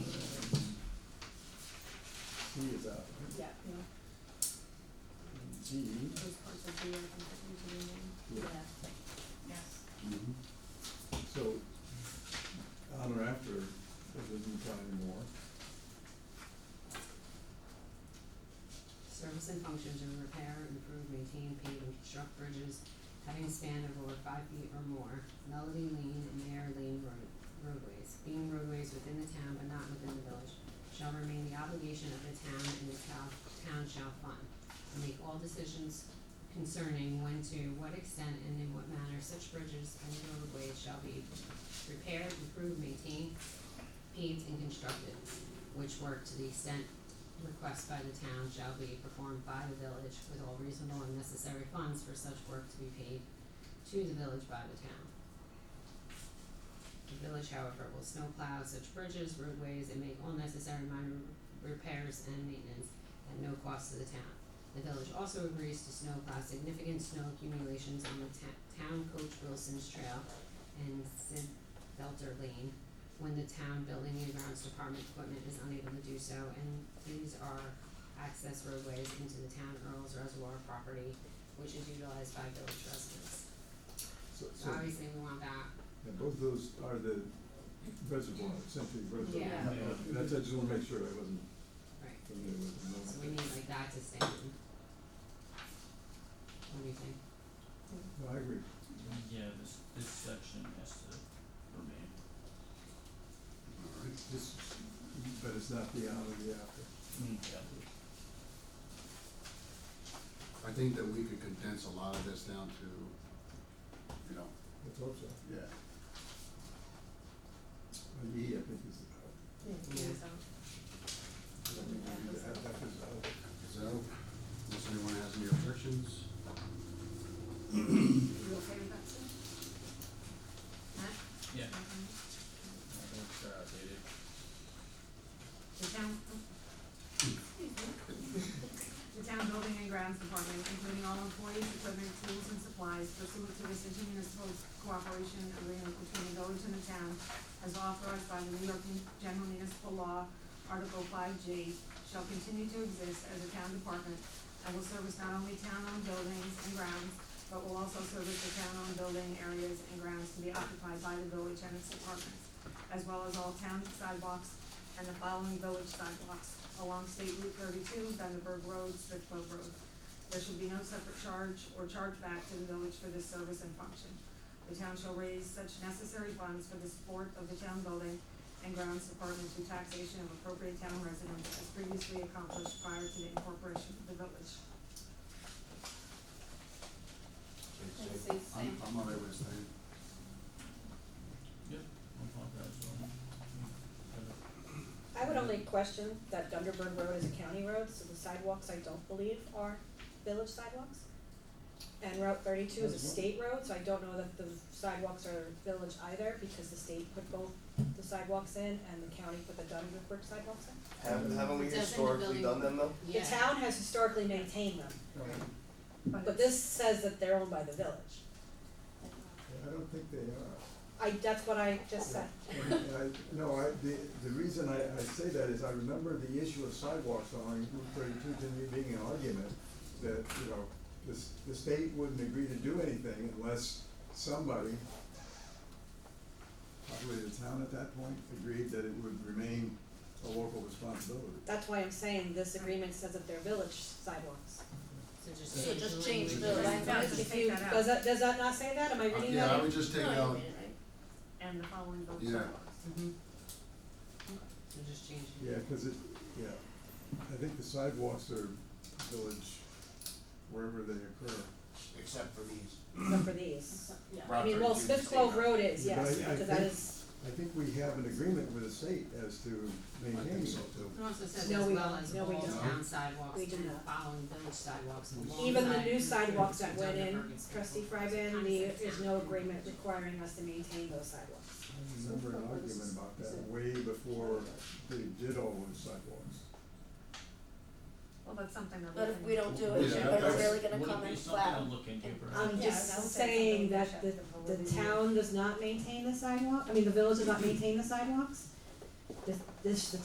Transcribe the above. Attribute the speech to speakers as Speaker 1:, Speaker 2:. Speaker 1: Yeah, yeah,
Speaker 2: G.
Speaker 1: those parts of the, I think that we should remove.
Speaker 2: Yeah.
Speaker 3: Yes.
Speaker 2: Mhm. So, on or after, it doesn't apply anymore.
Speaker 4: Service and functions are repair, improve, maintain, pave, and construct bridges having a span of over five feet or more, Melody Lane and Mayor Lane road, roadways, being roadways within the town but not within the village, shall remain the obligation of the town and the town, town shall fund. And make all decisions concerning when to, what extent, and in what manner such bridges and roadways shall be repaired, improved, maintained, paved, and constructed, which work to the extent requests by the town shall be performed by the village with all reasonable and necessary funds for such work to be paid to the village by the town. The village, however, will snowplow such bridges, roadways, and make all necessary minor repairs and maintenance at no cost to the town. The village also agrees to snowplow significant snow accumulations on the ta- town coach Wilson's Trail and Sid Belter Lane when the town building and grounds department equipment is unable to do so, and these are access roadways into the town Earl's Reservoir property, which is utilized by village residents.
Speaker 2: So,
Speaker 4: So
Speaker 2: so,
Speaker 4: obviously, we want that,
Speaker 2: yeah, both of those are the reservoir, essentially reservoir.
Speaker 1: Yeah.
Speaker 4: Yeah.
Speaker 2: Yeah, That's, I just wanna make sure I wasn't
Speaker 4: right,
Speaker 2: familiar with them.
Speaker 4: so we need like that to stay in. What do you think?
Speaker 2: No, I agree.
Speaker 3: Yeah, this, this section has to remain.
Speaker 2: It's just, but it's not the on or the after.
Speaker 3: Hmm. Yeah.
Speaker 5: I think that we could condense a lot of this down to, you know.
Speaker 2: Let's hope so.
Speaker 5: Yeah.
Speaker 2: And E, I think is out.
Speaker 1: Yeah,
Speaker 4: Yeah.
Speaker 2: I
Speaker 1: so,
Speaker 2: don't think we need to add that as out.
Speaker 5: So, unless anyone has any objections,
Speaker 1: you okay with that, Sue?
Speaker 4: Matt?
Speaker 3: Yeah.
Speaker 1: Mm-hmm.
Speaker 3: uh, I think they're outdated.
Speaker 1: The town, the town building and grounds department, including all employees, equipment, tools, and supplies pursuant to this intermunicipal cooperation agreement between the village and the town, as authorized by the New York General Municipal Law, Article five G, shall continue to exist as a town department and will service not only town-owned buildings and grounds, but will also service the town-owned building areas and grounds to be occupied by the village and its departments, as well as all town sidewalks and the following village sidewalks along State Route thirty-two, Vandenberg Road, Smithfield Road. There should be no separate charge or chargeback to the village for this service and function. The town shall raise such necessary funds for the support of the town building and grounds department through taxation of appropriate town residents as previously accomplished prior to the incorporation of the village.
Speaker 5: so I'm, I'm all right with staying.
Speaker 3: Yep, I'm fine with that as well.
Speaker 6: I would only question that Dunderberg Road is a county road, so the sidewalks I don't believe are village sidewalks. And Route thirty-two is a
Speaker 2: That's one.
Speaker 6: state road, so I don't know that the sidewalks are village either, because the state put both the sidewalks in and the county put the Dunderberg sidewalks in.
Speaker 7: Haven't, haven't we
Speaker 4: Doesn't the
Speaker 7: historically
Speaker 4: building-
Speaker 7: done them though?
Speaker 4: Yeah.
Speaker 6: The town has historically maintained them, but
Speaker 1: it's-
Speaker 6: this says that they're owned by the village.
Speaker 2: Yeah, I don't think they are.
Speaker 6: I, that's what I just said.
Speaker 2: I, no, I, the, the reason I, I say that is I remember the issue of sidewalks on Route thirty-two, to me being an argument that, you know, the, s- the state wouldn't agree to do anything unless somebody, probably the town at that point, agreed that it would remain a local responsibility.
Speaker 6: That's why I'm saying this agreement says that they're village sidewalks.
Speaker 4: So just
Speaker 3: So
Speaker 4: change the language.
Speaker 8: just change the
Speaker 4: Doesn't-
Speaker 1: language. Yeah, just
Speaker 6: If
Speaker 1: take
Speaker 6: you-
Speaker 1: that out.
Speaker 6: Does that, does that not say that? Am I reading
Speaker 5: Uh, Yeah,
Speaker 6: that
Speaker 5: I would just take out,
Speaker 1: And the following village
Speaker 5: Yeah.
Speaker 1: sidewalks.
Speaker 4: Mhm. So just change it.
Speaker 2: Yeah, cause it, yeah, I think the sidewalks are village wherever they occur.
Speaker 7: Except for these.
Speaker 6: except for these?
Speaker 8: Yeah.
Speaker 6: I mean, well, Smith Clove Road is,
Speaker 2: But
Speaker 6: yes,
Speaker 2: I- I
Speaker 6: because that
Speaker 2: think-
Speaker 6: is,
Speaker 2: I think we have an agreement with the state as to
Speaker 5: I
Speaker 2: maintaining
Speaker 5: think so
Speaker 2: it.
Speaker 5: too.
Speaker 4: It also says
Speaker 6: No,
Speaker 4: as
Speaker 6: we
Speaker 4: well
Speaker 6: don't.
Speaker 4: as
Speaker 6: No, we
Speaker 4: all
Speaker 6: don't.
Speaker 4: town sidewalks
Speaker 6: We do
Speaker 4: and
Speaker 6: not.
Speaker 4: following village sidewalks alongside.
Speaker 6: even the new
Speaker 4: and
Speaker 6: sidewalks that
Speaker 4: includes
Speaker 6: went in,
Speaker 4: Dunderberg and Smith
Speaker 6: trustee
Speaker 4: Clove.
Speaker 6: Fryban, the, there's no agreement requiring us to maintain those sidewalks.
Speaker 2: I remember an argument about that way before they did all those sidewalks.
Speaker 1: Well, that's something that we.
Speaker 8: But if
Speaker 1: can-
Speaker 8: we don't do it,
Speaker 5: Yeah,
Speaker 8: everyone's
Speaker 5: that's-
Speaker 8: really gonna come
Speaker 3: Would it be
Speaker 8: and
Speaker 3: something
Speaker 8: flat. Um,
Speaker 3: to look into perhaps?
Speaker 6: I'm
Speaker 8: Yeah, that
Speaker 6: Um, just
Speaker 8: would
Speaker 6: saying
Speaker 1: take
Speaker 6: that
Speaker 1: the
Speaker 6: the,
Speaker 1: village up to
Speaker 6: the
Speaker 1: validity.
Speaker 6: town does not maintain the sidewalk, I mean, the village does not maintain the sidewalks. This, this, the